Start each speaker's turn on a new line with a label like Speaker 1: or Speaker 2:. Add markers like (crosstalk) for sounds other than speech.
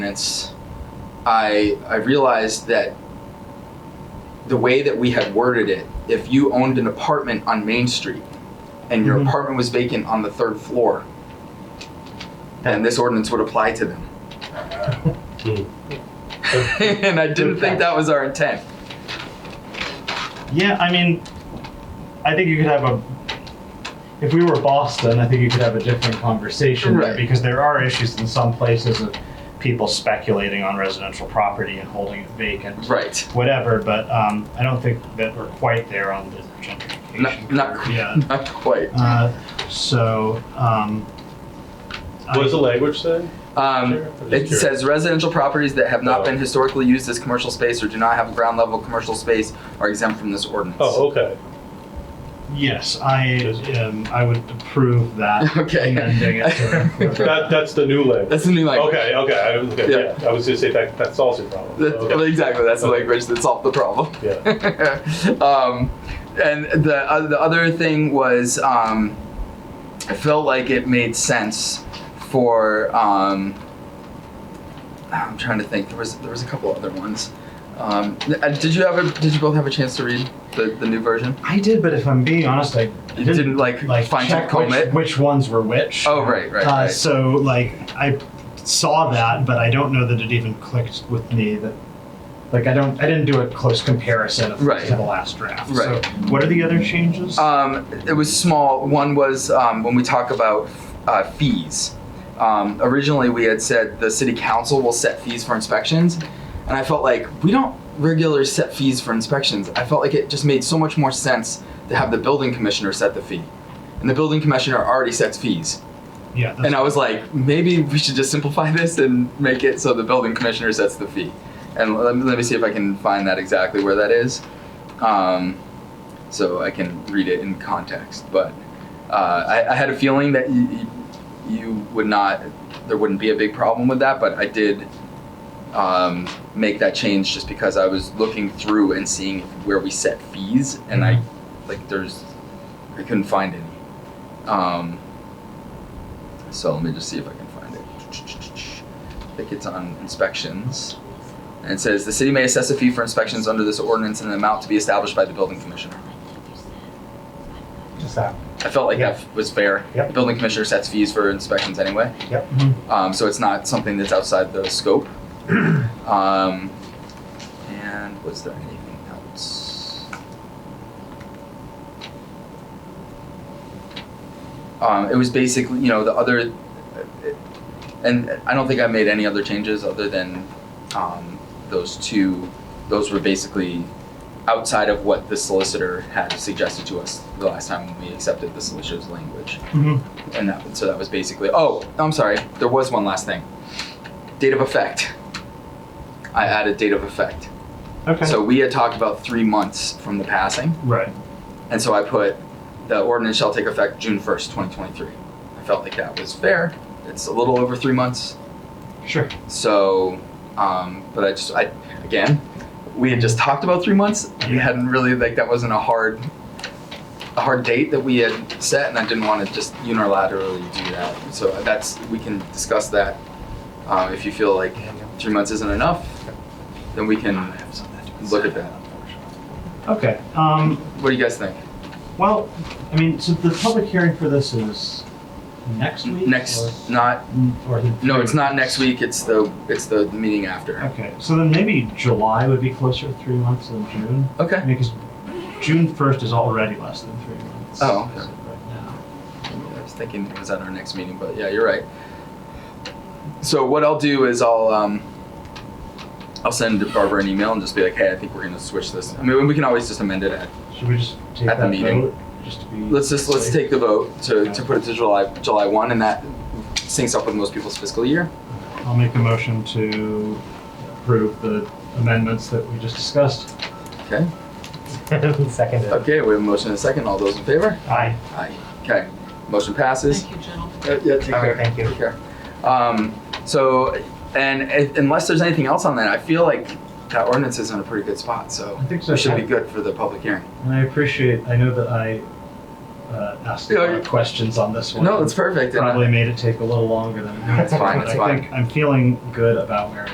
Speaker 1: clients, I I realized that the way that we had worded it, if you owned an apartment on Main Street and your
Speaker 2: Mhm.
Speaker 1: apartment was vacant on the third floor, then this ordinance would apply to them.
Speaker 2: Hmm.
Speaker 1: (laughs) and I didn't think that was our intent.
Speaker 2: Yeah, I mean, I think you could have a. If we were Boston, I think you could have a different conversation there
Speaker 1: Right.
Speaker 2: because there are issues in some places of people speculating on residential property and holding it vacant,
Speaker 1: Right. (laughs)
Speaker 2: whatever. But um, I don't think that we're quite there on the gentrification.
Speaker 1: Not, not,
Speaker 2: curve yet.
Speaker 1: not quite.
Speaker 2: Uh, so. Um, I-
Speaker 3: What does the language say?
Speaker 1: Um,
Speaker 3: Sure. I'm just
Speaker 1: it
Speaker 3: curious.
Speaker 1: says residential properties that have not
Speaker 3: Oh.
Speaker 1: been historically used as commercial space or do not have ground level commercial space are exempt from this ordinance.
Speaker 3: Oh, okay.
Speaker 2: Yes, I um, I would approve that.
Speaker 1: (laughs) Okay.
Speaker 2: Amending it
Speaker 1: (laughs)
Speaker 2: to include-
Speaker 3: That, that's the new language.
Speaker 1: That's the new language.
Speaker 3: Okay, okay. I, was- okay
Speaker 1: Yeah.
Speaker 3: yeah. I was going to say that that solves your problem.
Speaker 1: That-
Speaker 3: Okay.
Speaker 1: Exactly. That's the
Speaker 3: Okay.
Speaker 1: language that solved the problem.
Speaker 3: Yeah.
Speaker 1: (laughs) um, and the uh, the other thing was, um, I felt like it made sense for. Um, I'm trying to think. There was there was a couple other ones. Um, uh, did you have a, Did you both have a chance to read the, the new version?
Speaker 2: I did, but if I'm being honest, I
Speaker 1: You didn't like,
Speaker 2: like
Speaker 1: find
Speaker 2: check
Speaker 1: check comb
Speaker 2: which,
Speaker 1: it.
Speaker 2: which ones were which.
Speaker 1: Oh right, right,
Speaker 2: uh,
Speaker 1: right.
Speaker 2: So like I saw that, but I don't know that it even clicked with me that like I don't I didn't do a close comparison of
Speaker 1: Right.
Speaker 2: to the last draft.
Speaker 1: Right.
Speaker 2: So what are the other changes?
Speaker 1: Um, it was small. One was um, when we talk about uh, fees. Um, originally, we had said the city council will set fees for inspections, and I felt like we don't regularly set fees for inspections. I felt like it just made so much more sense to have the building commissioner set the fee, and the building commissioner already sets fees.
Speaker 2: yeah. That's,
Speaker 1: And I was like, maybe we should just simplify this and make it so the building commissioner sets the fee. And let me, let me see if I can find that exactly where that is. Um, so I can read it in context. But uh, I, I had a feeling that you, you- you would not, there wouldn't be a big problem with that, but I did um, make that change just because I was looking through and seeing where we set fees, and I, like, there's, I couldn't find any. Um, so let me just see if I can find it. I think it's on inspections. And it says the city may assess a fee for inspections under this ordinance in an amount to be established by the building commissioner.
Speaker 2: just that.
Speaker 1: I felt like that was fair.
Speaker 2: Yep.
Speaker 1: The building commissioner sets fees for inspections anyway,
Speaker 2: Yep. Mm-hmm.
Speaker 1: um, so it's not something that's outside the scope. um, and was there anything else? Um, it was basically, you know, the other, and I don't think I made any other changes other than um, those two. Those were basically outside of what the solicitor had suggested to us the last time when we accepted the solicitor's language.
Speaker 2: Mhm.
Speaker 1: And that, so that was basically. Oh, I'm sorry. There was one last thing. Date of effect. I added date of effect.
Speaker 2: Okay.
Speaker 1: So we had talked about three months from the passing,
Speaker 2: right.
Speaker 1: and so I put the ordinance shall take effect June 1st, 2023. I felt like that was fair. It's a little over three months.
Speaker 2: Sure.
Speaker 1: So, um, but I just, I, again, we had just talked about three months. We
Speaker 2: Yeah.
Speaker 1: hadn't really, like, that wasn't a hard, a hard date that we had set, and I didn't want to just unilaterally do that. So that's, we can discuss that. Um, if you feel like three months isn't enough, then we can look at that.
Speaker 2: Okay. Um,
Speaker 1: What do you guys think?
Speaker 2: Well, I mean, so the public hearing for this is next week?
Speaker 1: Next, not,
Speaker 2: Or, or the
Speaker 1: no, it's not next week, it's the, it's the meeting after.
Speaker 2: Okay, so then maybe July would be closer to three months than June?
Speaker 1: Okay.
Speaker 2: I mean, because June 1st is already less than three months.
Speaker 1: Oh,
Speaker 2: as of right now.
Speaker 1: I was thinking it was at our next meeting, but yeah, you're right. So what I'll do is I'll um, I'll send Barbara an email and just be like, hey, I think we're gonna switch this. I mean, we can always just amend it. At,
Speaker 2: Should we just take
Speaker 1: At the
Speaker 2: that
Speaker 1: meeting.
Speaker 2: vote? Just to be.
Speaker 1: let's just let's
Speaker 2: safe?
Speaker 1: take the vote to, to put it to July July one, and that syncs up with most people's fiscal year.
Speaker 2: I'll make a motion to approve the amendments that we just discussed.
Speaker 1: Okay.
Speaker 4: Seconded.
Speaker 1: Okay. We have a motion and a second. All those in favor?
Speaker 2: Aye.
Speaker 1: Aye. Okay. Motion passes.
Speaker 5: Thank you, gentlemen.
Speaker 1: Uh, yeah. Take
Speaker 4: All
Speaker 1: care.
Speaker 4: right, thank you.
Speaker 1: Take care. Um, so, and if, unless there's anything else on that, I feel like that ordinance is in a pretty good spot. So.
Speaker 2: I think so.
Speaker 1: So it should be good for the public hearing.
Speaker 2: And I appreciate, I know that I, uh, asked a
Speaker 1: Yeah,
Speaker 2: lot of
Speaker 1: you-
Speaker 2: questions on this one.
Speaker 1: No, that's perfect. and I-
Speaker 2: Probably made it take a little longer than.
Speaker 1: That's fine, that's
Speaker 2: I think I'm feeling good about where